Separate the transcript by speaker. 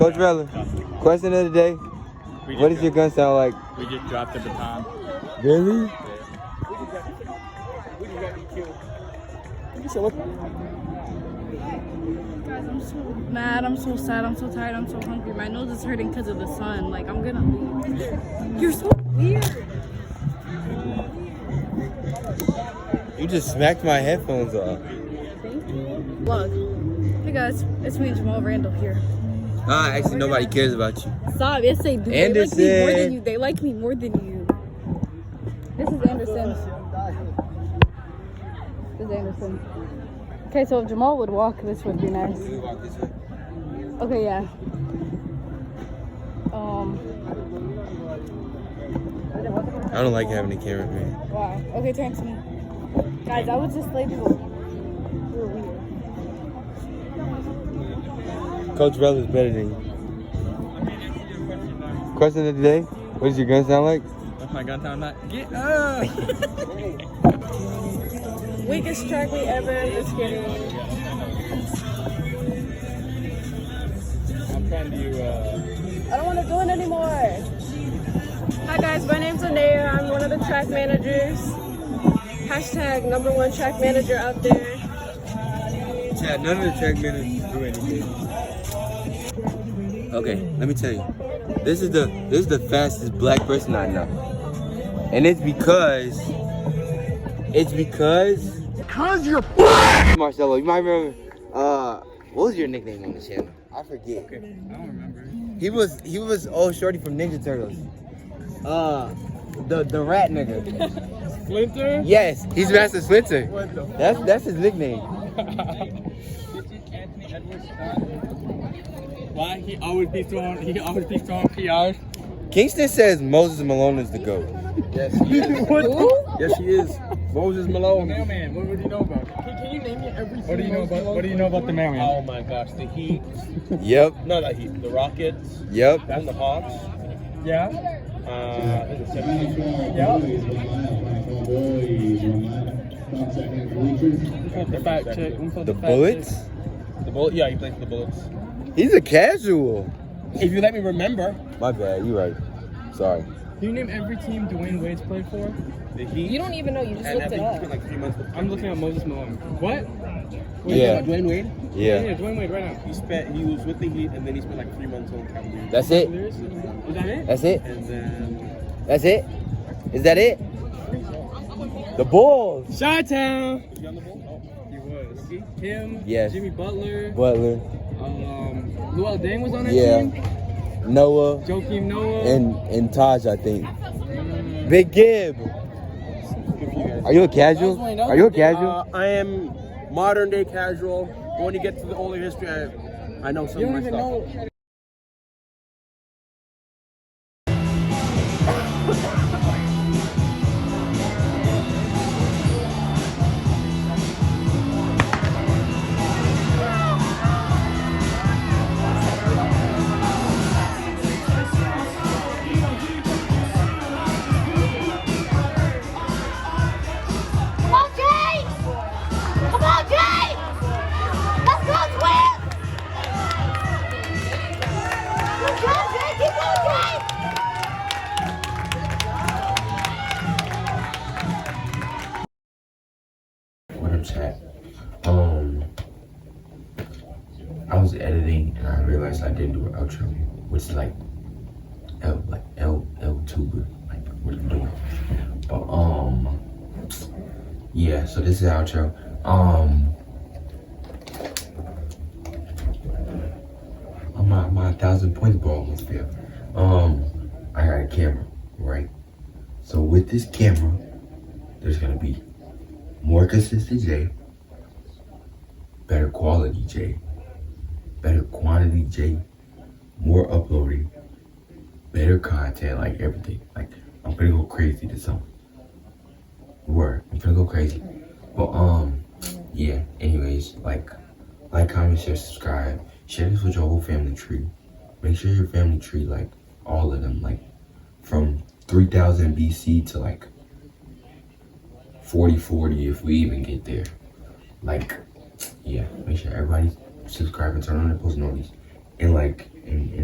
Speaker 1: Coach Velen, question of the day.
Speaker 2: We
Speaker 1: What
Speaker 2: just
Speaker 1: does your gun sound like?
Speaker 2: dro- We just dropped the baton.
Speaker 1: Really?
Speaker 3: Guys, I'm so mad. I'm so sad. I'm so tired. I'm so hungry. My nose is hurting because of the sun. Like, I'm gonna leave. You're so weird.
Speaker 1: You just smacked my headphones off.
Speaker 3: Look. Hey guys, it's me, Jamal Randall here.
Speaker 1: Ah, actually, nobody cares about you.
Speaker 3: Stop. Yes, they do. They like me more
Speaker 1: Anderson.
Speaker 3: than you. They like me more than you. This is Anderson. This is Anderson. Okay, so if Jamal would walk, this would be nice. Okay, yeah. Um.
Speaker 1: I don't like having a camera, man.
Speaker 3: Wow. Okay, turn to me. Guys, I was just like, we're weird.
Speaker 1: Coach Velen is better than you. Question of the day. What does your gun sound like?
Speaker 2: What's my gun sound like? Get up!
Speaker 3: Weakest track we ever. Just kidding.
Speaker 2: I'm trying to, uh,
Speaker 3: I don't want to do it anymore.
Speaker 4: Hi guys, my name's Anaya. I'm one of the track managers. Hashtag number one track manager out there.
Speaker 1: Yeah, none of the track minutes do anything. Okay, let me tell you. This is the this is the fastest black person I know. And it's because it's because Because you're black Marcelo, you might remember uh what was your nickname on the channel? I forget.
Speaker 2: I don't remember.
Speaker 1: He was he was old shorty from Ninja Turtles. Uh the the rat nigga.
Speaker 2: Splinter?
Speaker 1: Yes, he's Master Splinter.
Speaker 2: What the
Speaker 1: That's that's his nickname.
Speaker 2: Anthony Edwards Why? He always be throwing, he always be throwing PRs.
Speaker 1: Kingston says Moses Malone is the GOAT.
Speaker 2: Yes, he is. what
Speaker 1: Yes, he is. Moses
Speaker 2: the
Speaker 1: Malone.
Speaker 2: mailman, what would you know about? Can, you name me every What do you know about, what do you know about the mailman?
Speaker 5: Oh my gosh, the Heat.
Speaker 1: Yep,
Speaker 5: No, the Heat. The Rockets.
Speaker 1: yep.
Speaker 5: That's the Hawks.
Speaker 2: Yeah?
Speaker 5: Uh, I think the 76ers.
Speaker 2: The fact check. I'm for
Speaker 1: The
Speaker 2: fact
Speaker 1: Bullets?
Speaker 5: The Bull- yeah, he plays for the Bullets.
Speaker 1: He's a casual.
Speaker 5: If you let me remember,
Speaker 1: My bad, you right. Sorry.
Speaker 2: check. Can you name every team Dwayne Wade's played for?
Speaker 5: the Heat.
Speaker 3: You don't even know. You just
Speaker 5: and I
Speaker 3: looked it
Speaker 5: think he
Speaker 3: up.
Speaker 5: spent like three months with
Speaker 2: I'm looking at Moses Malone. What?
Speaker 1: Yeah.
Speaker 5: Dwayne Wade.
Speaker 1: Yeah.
Speaker 2: Dwayne Wade right now.
Speaker 5: He spent. He was with the Heat, and then he spent like three months on Cavaliers.
Speaker 1: That's it?
Speaker 2: Is that it?
Speaker 1: That's it?
Speaker 5: And then
Speaker 1: That's it? Is that it? The Bulls.
Speaker 2: Shot Town.
Speaker 5: was he on the Oh, Bulls?
Speaker 2: He was. Him.
Speaker 1: Yes.
Speaker 2: Jimmy Butler.
Speaker 1: Butler,
Speaker 2: Um, Luol Deng was on that
Speaker 1: Yeah.
Speaker 2: team.
Speaker 1: Noah,
Speaker 2: Joakim Noah.
Speaker 1: and and Taj, I think. Big Gib.
Speaker 5: Oh, good for you guys.
Speaker 1: Are you a casual? Are you a casual?
Speaker 5: Uh, I am modern day casual. But when you get to the older history, I, I know some
Speaker 2: you
Speaker 5: of
Speaker 2: don't
Speaker 5: my
Speaker 2: even
Speaker 5: stuff.
Speaker 2: know.
Speaker 6: Come on, Jay! Come on, Jay! Let's go, Twins! Good job, Jay! Keep going, Jay!
Speaker 7: when I'm sad. Um, I was editing and I realized I didn't do an outro, which is like L like L L tuber, like what I'm doing. But um, yeah. So this is outro. Um, oh, my my thousand points ball was failed. Um, I got a camera, right? So with this camera, there's gonna be more consistent J, better quality J, better quantity J, more uploading, better content, like everything. Like I'm gonna go crazy this summer. Word, I'm gonna go crazy. But um, yeah. Anyways, like, like, comment, share, subscribe, share this with your whole family tree. Make sure your family tree, like, all of them, like, from 3000 BC to like 40 40 if we even get there. Like, yeah, make sure everybody subscribe and turn on the post notices. and like and, and